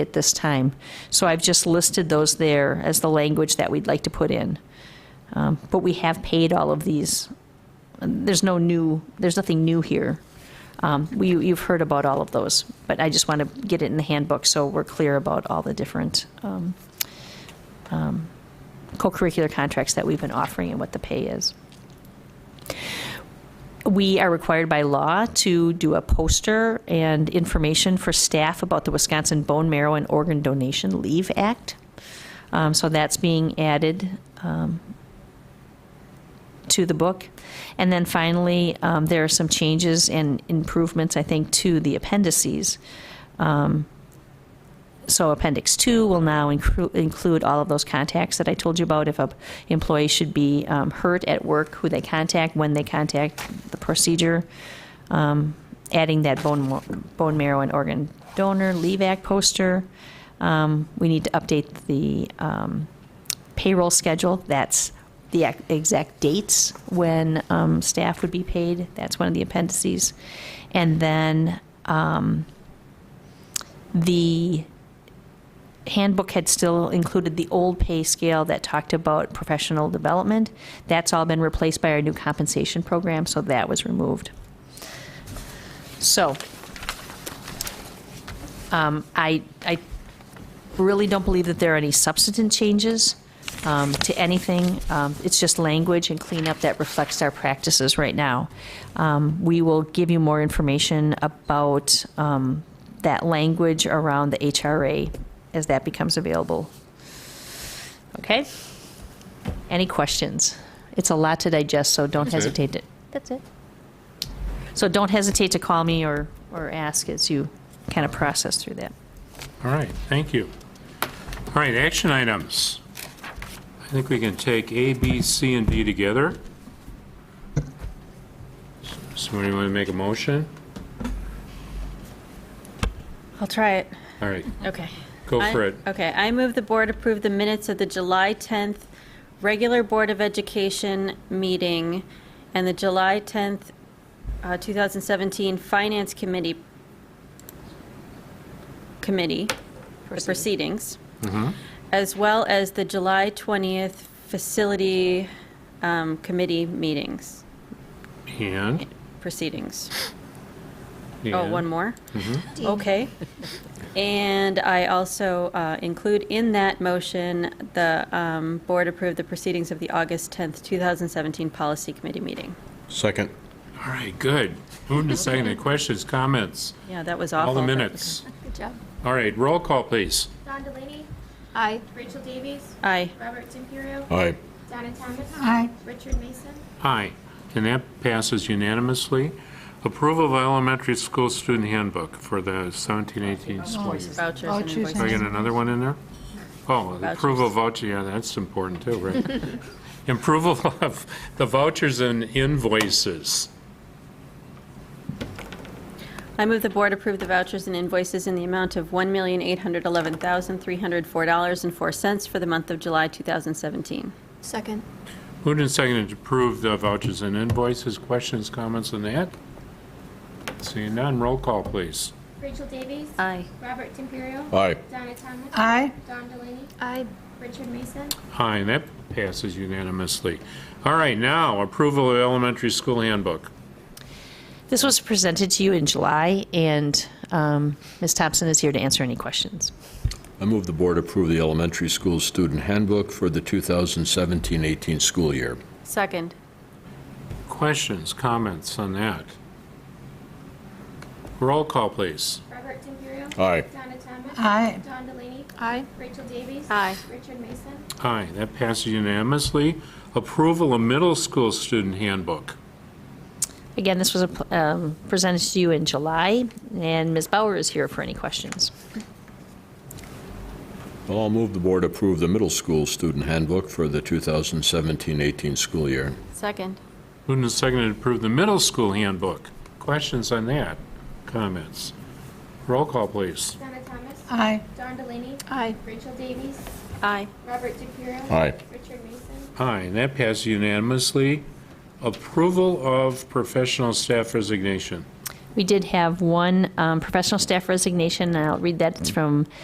at this time. So I've just listed those there as the language that we'd like to put in. Um, But we have paid all of these. There's no new, there's nothing new here. Um, we- You've heard about all of those, but I just want to get it in the handbook so we're clear about all the different um, um, co-curricular contracts that we've been offering and what the pay is. We are required by law to do a poster and information for staff about the Wisconsin Bone Marrow and Organ Donation Leave Act. Um, so that's being added um, to the book. And then finally, um, there are some changes and improvements, I think, to the appendices. Um, so Appendix 2 will now incru- include all of those contacts that I told you about. If a employee should be um, hurt at work, who they contact, when they contact, the procedure, um, adding that bone mo- bone marrow and organ donor leave act poster. Um, We need to update the um, payroll schedule. That's the ac- exact dates when um, staff would be paid. That's one of the appendices. And then um, the handbook had still included the old pay scale that talked about professional development. That's all been replaced by our new compensation program, so that was removed. So, um, I, I really don't believe that there are any substantive changes um, to anything. Um, It's just language and cleanup that reflects our practices right now. Um, We will give you more information about um, that language around the HRA as that becomes available. Okay? Any questions? It's a lot to digest, so don't That's it. hesitate to. That's it. So don't hesitate to call me or, or ask as you kind of process through that. All right, thank you. All right, action items. I think we can take A, B, C, and D together. Somebody want to make a motion? I'll try it. All right, Okay. go I- for it. Okay, I move the board approve the minutes of the July 10th regular Board of Education meeting and the July 10th, uh, 2017 Finance Committee, committee, the proceedings, Mm-hmm. as well as the July 20th Facility um, Committee meetings, And? proceedings. Oh, and- one more? Okay. And I also uh, include in that motion, the um, board approved the proceedings of the August 10th, 2017 Policy Committee meeting. Second. All right, good. Moving to second, Any questions, comments, Yeah, that was awful. all the but- minutes. Good job. All right, roll call, please. Don Delaney, Aye. Rachel Davies, Aye. Robert Timperio, Aye. Donna Thomas. Richard Mason, Aye, and that passes unanimously. Approval of elementary school student handbook for the 17-18 school year. Vouchers and Do I invoices. get another one in there? Oh, Vouchers. approval of voucher, yeah, that's important too, right? Approval of the vouchers and invoices. I move the board approve the vouchers and invoices in the amount of $1,811,304.04 for the month of July 2017. Second. Moved and seconded to approve the vouchers and invoices. Questions, comments on that? Seeing none, roll call, please. Rachel Davies. Aye. Robert Timperio. Aye. Donna Thomas. Aye. Don Delaney, Aye. Richard Mason, Aye, and that passes unanimously. All right, now, approval of elementary school handbook. This was presented to you in July, and um, Ms. Thompson is here to answer any questions. I move the board approve the elementary school student handbook for the 2017-18 school year. Second. Questions, comments on that? Roll call, please. Robert Timperio. Aye. Donna Thomas. Aye. Don Delaney, Aye. Rachel Davies. Aye. Richard Mason, Aye, that passes unanimously. Approval of middle school student handbook. Again, this was a- um, presented to you in July, and Ms. Bauer is here for any questions. Well, I'll move the board approve the middle school student handbook for the 2017-18 school year. Second. Moved and seconded to approve the middle school handbook. Questions on that? Comments? Roll call, please. Donna Thomas. Aye. Don Delaney, Aye. Rachel Davies, Aye. Robert Timperio. Aye. Richard Mason, Aye, and that passes unanimously. Approval of professional staff resignation. We did have one um, professional staff resignation, and I'll read that. It's from